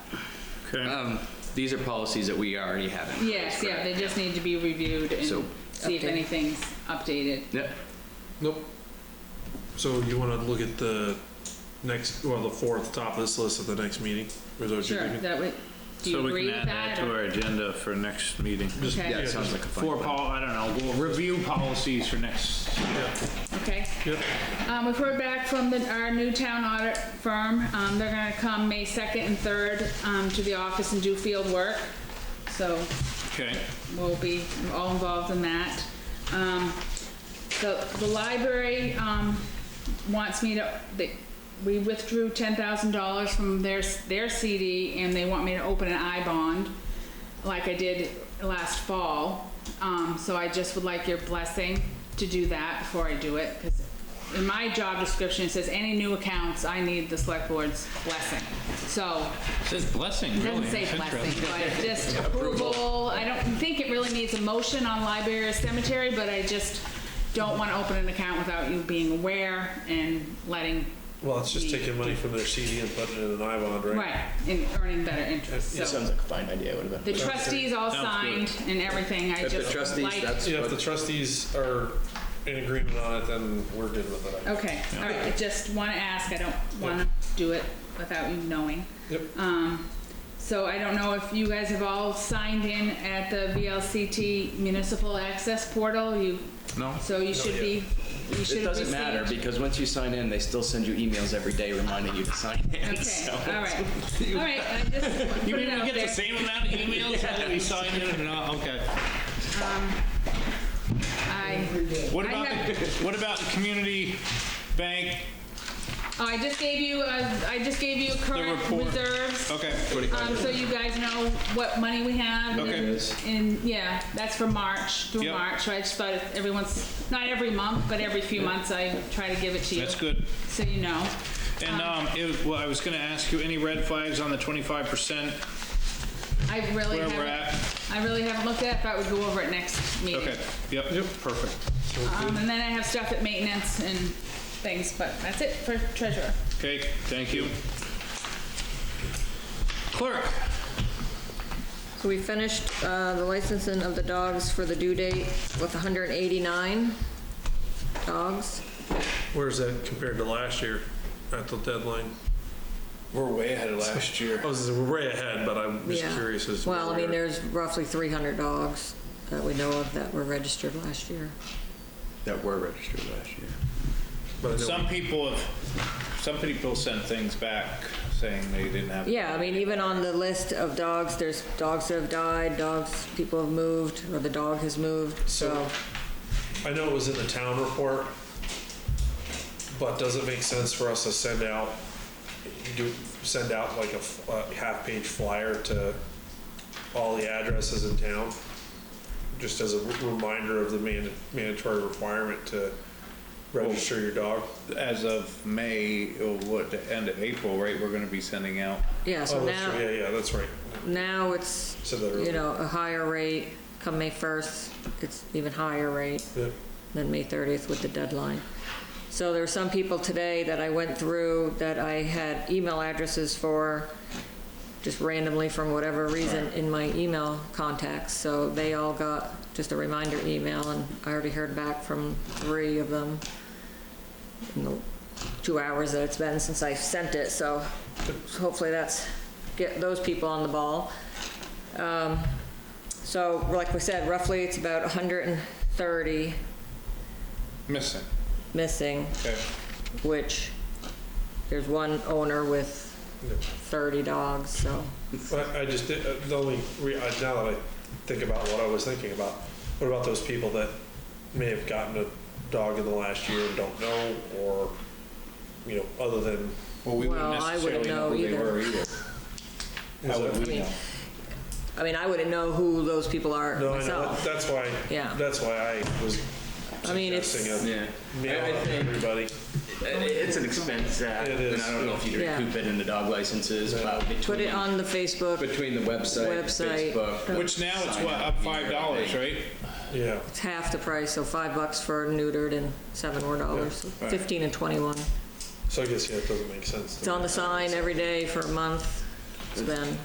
Okay, Um, these are policies that we already have in place. Yes, yeah, they correct? just need to be reviewed So- and see if Updated. anything's updated. Yep, Nope. So you wanna look at the next, well, the fourth top of this list at the next meeting? Or is that what you're Sure, thinking? that would, do so you we agree can with add that? that to or- our agenda for next meeting. Just- Okay. yeah, it yeah, sounds just- like a fun For plan. Paul, I don't know, we'll review policies for next, Okay. Yep. Um, we've heard back from the, our new town audit firm. Um, they're gonna come May second and third, um, to the office and do field work. So okay, we'll be all involved in that. Um, the, the library, um, wants me to, they, we withdrew ten thousand dollars from their, their CD and they want me to open an I bond like I did last fall. Um, so I just would like your blessing to do that before I do it, cause in my job description, it says any new accounts, I need the select board's blessing. So It says blessing, it really. Doesn't say It's blessing, interesting. but just approval. I don't think it really needs a motion on library or cemetery, but I just don't want to open an account without you being aware and letting, Well, it's just taking money from their CD and putting it in an I bond, right? right, and earning better interest, It so. Sounds like a fine idea, would have The been. trustees all Sounds good. signed and everything, I If the just trustees, like. that's Yeah, if what the trustees are in agreement on it, then we're good with it. I guess. Okay, all right, I just want to ask, I don't want to do it without you knowing. Yep. Uh. Um, so I don't know if you guys have all signed in at the VLCT Municipal Access Portal, you. No. So you should be, you should It have doesn't matter received. because once you sign in, they still send you emails every day reminding you to sign in. Okay, so- all right, all right, I just put You it mean out we get the there. same amount of emails whether we sign in or not, okay. I, What I about, the- what about the community bank, oh, I just gave you, uh, I just gave you current report. reserves. okay, Um, so you guys know what money we have. Okay. and- And, yeah, that's for March, through Yep. March, so I just thought if everyone's, not every month, but every few months I try to give it to you. that's good. So you know. And, um, it, well, I was gonna ask you, any red flags on the twenty-five percent I really where haven't. we're at? I really haven't looked at it, but I would go over it next meeting. Okay, yep, perfect. Um, and then I have stuff at maintenance and things, but that's it for treasurer. Okay, thank you. Clerk, So we finished uh, the licensing of the dogs for the due date with 189 dogs. Where's that compared to last year at the deadline? We're way ahead of last year. I was, we're way ahead, but I'm just Yeah. curious as to Well, I where we mean, are. there's roughly 300 dogs that we know of that were registered last year. That were registered last year. But I know- some people have, some people sent things back saying they didn't have. Yeah, I mean, even on the list of dogs, there's dogs that have died, dogs, people have moved, or the dog has moved, so. I know it was in the town report, but does it make sense for us to send out, do, send out like a f- a half-page flyer to all the addresses in town? Just as a reminder of the mand- mandatory requirement to register your dog? As of May, or what, the end of April, right, we're gonna be sending out. Yeah, so Oh, that's right, now, yeah, yeah, that's right. now it's, Said that you earlier. know, a higher rate. Come May 1st, it's even higher rate. Yeah. than May 30th with the deadline. So there were some people today that I went through that I had email addresses for, just randomly from whatever reason, in my email contacts. So they all got just a reminder email, and I already heard back from three of them in the two hours that it's been since I sent it, so hopefully that's, get those people on the ball. Um, So, like we said, roughly it's about 130 Missing, missing, okay. which there's one owner with 30 dogs, so. I, I just, did- uh, the only, re- I- now that I think about what I was thinking about, what about those people that may have gotten a dog in the last year and don't know, or, you know, other than, Well, we wouldn't Well, I wouldn't necessarily know know who they either. were either. How would we know? I mean, I wouldn't know who those people are no, I know, myself. that's why, Yeah. that's why I was I mean, it's- suggesting a Yeah. mail I- I out to think- everybody. It's an expense, that- It and is. I don't know if you Yeah. recoup it in the dog licenses, but Put between, it on the Facebook, between the website, Website. Facebook. Which now it's sign what, up five dollars, everything. right? Yeah, it's half the price, so five bucks for neutered and seven more dollars, 15 and 21. so I guess, yeah, it doesn't make sense. to It's on the sign every day for a month, it's been,